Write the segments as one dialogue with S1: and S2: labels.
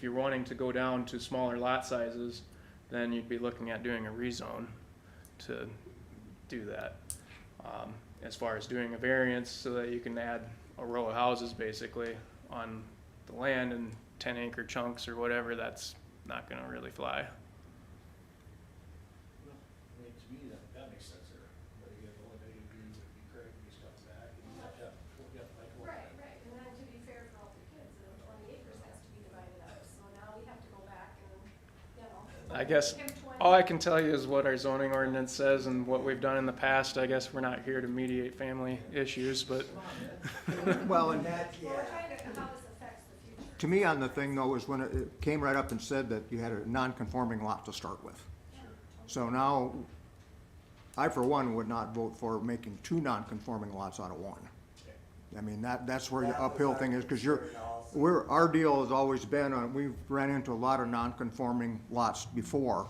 S1: If you're wanting to go down to smaller lot sizes, then you'd be looking at doing a rezone to do that. Um, As far as doing a variance so that you can add a row of houses basically on the land in ten acre chunks or whatever, that's not gonna really fly.
S2: No, I mean, to me, that, that makes sense there, but again, the only thing would be, would be Craig, he's coming back, and you have to, you have to like. work
S3: Right,
S2: that.
S3: right, and then to be fair for all the kids, the twenty acres has to be divided up, so now we have to go back and, you know.
S1: I guess
S3: give 20
S1: All I can tell you is what our zoning ordinance says and what we've done in the past. I guess we're not here to mediate family issues, but
S4: Well, and that,
S3: Well, we're trying to, how this affects the future.
S4: to me, on the thing though, was when it- it came right up and said that you had a non-conforming lot to start with. So now, I for one would not vote for making two non-conforming lots out of one. I mean, that, that's where the
S5: That was
S4: uphill
S5: our
S4: thing is, because you're,
S5: concern also.
S4: we're, our deal has always been on, we've ran into a lot of non-conforming lots before.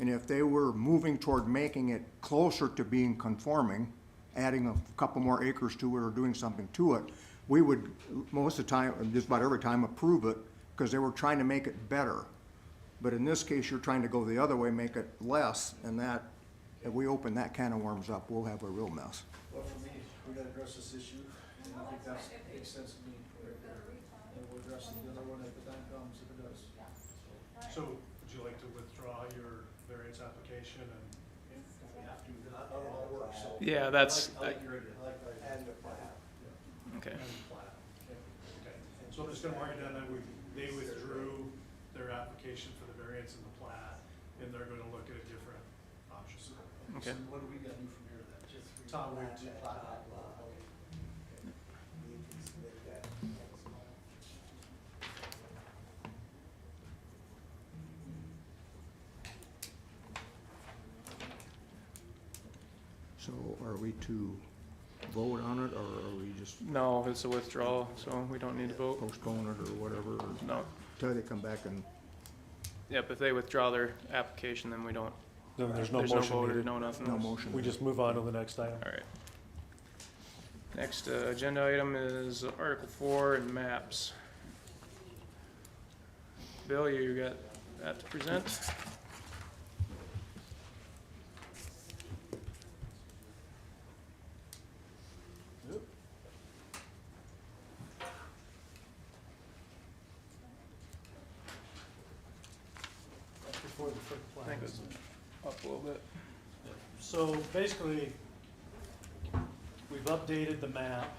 S4: And if they were moving toward making it closer to being conforming, adding a couple more acres to it or doing something to it, we would, most of the time, just about every time, approve it, because they were trying to make it better. But in this case, you're trying to go the other way, make it less, and that, if we open that can of worms up, we'll have a real mess.
S2: Well, for me, we're gonna address this issue, and I think that's, makes sense to me, right there, and we'll address the other one if the time comes, if it does.
S6: So would you like to withdraw your variance application and
S2: We have to, I don't know how it works, so.
S1: yeah, that's,
S2: I like your idea, I like that idea.
S5: And the plat.
S1: okay.
S6: and plat? Okay, so I'm just gonna mark it down that we, they withdrew their application for the variance and the plat, and they're gonna look at a different option.
S1: Okay.
S2: So what do we gotta do from here then? Just
S6: Tom, we
S5: Plat,
S6: do
S5: that
S6: plat.
S5: top lot. You can submit that next month.
S4: So are we to vote on it, or are we just
S1: No, it's a withdrawal, so we don't need to vote.
S4: postpone it or whatever, or
S1: No.
S4: until they come back and,
S1: Yep, if they withdraw their application, then we don't,
S7: Then there's no
S1: there's no
S7: motion
S1: vote,
S7: needed.
S1: no nothing.
S4: no motion?
S7: We just move on to the next item.
S1: All right. Next uh, agenda item is Article Four and maps. Bill, you got that to present?
S6: That's before the first
S1: I
S6: plat.
S1: think it's up a little bit.
S6: So basically, we've updated the map,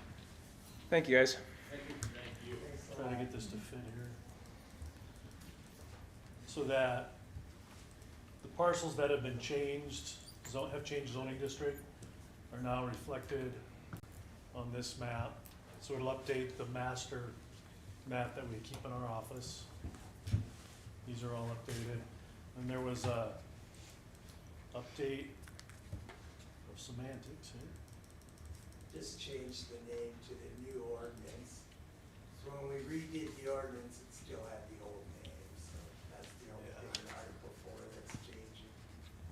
S1: Thank you, guys.
S6: trying to get this to fit here. So that the parcels that have been changed, zo- have changed zoning district, are now reflected on this map. So it'll update the master map that we keep in our office. These are all updated. And there was a update of semantics here.
S5: Just change the name to the new ordinance. So when we redid the ordinance, it still had the old name, so that's the only
S6: Yeah.
S5: thing in Article four that's changing.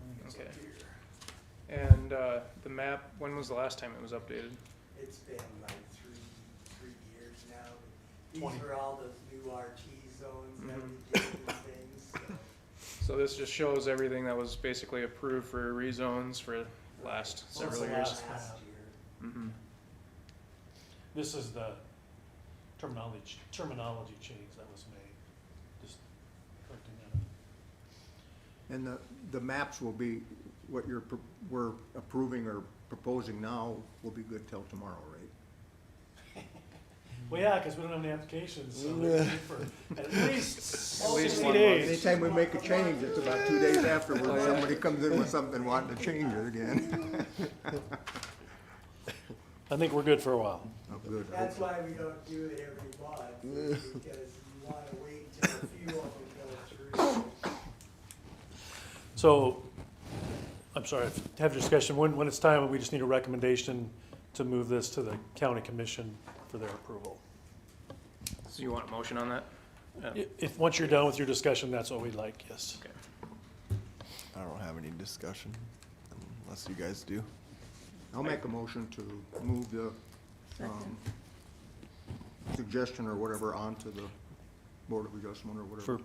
S6: I think it's up
S1: Okay.
S6: here.
S1: And uh, the map, when was the last time it was updated?
S5: It's been like three, three years now.
S6: Twenty.
S5: These were all those new RT zones that we
S1: Mhm.
S5: did and things, so.
S1: So this just shows everything that was basically approved for rezones for last
S6: Well, it's
S1: several
S6: the
S1: years.
S6: last
S5: Last
S6: map.
S5: year.
S1: Mm-hmm.
S6: This is the terminology, terminology change that was made, just correcting that.
S4: And the, the maps will be, what you're, pro- we're approving or proposing now will be good till tomorrow, right?
S6: Well, yeah, because we don't have any applications, so they're good for at
S1: least
S6: least sixty
S1: one month.
S6: days.
S4: Anytime we make a change, it's about two days afterwards, somebody comes in with something wanting to change it again.
S7: I think we're good for a while.
S4: Oh, good.
S5: That's why we don't do it every month, is because you wanna wait till a few of them go through.
S7: So, I'm sorry, to have a discussion, when, when it's time, we just need a recommendation to move this to the county commission for their approval.
S1: So you want a motion on that? Yeah.
S7: I- If, once you're done with your discussion, that's what we'd like, yes.
S1: Okay.
S8: I don't have any discussion unless you guys do.
S4: I'll make a motion to move the, um, suggestion or whatever onto the Board of Adjustment or whatever.
S7: For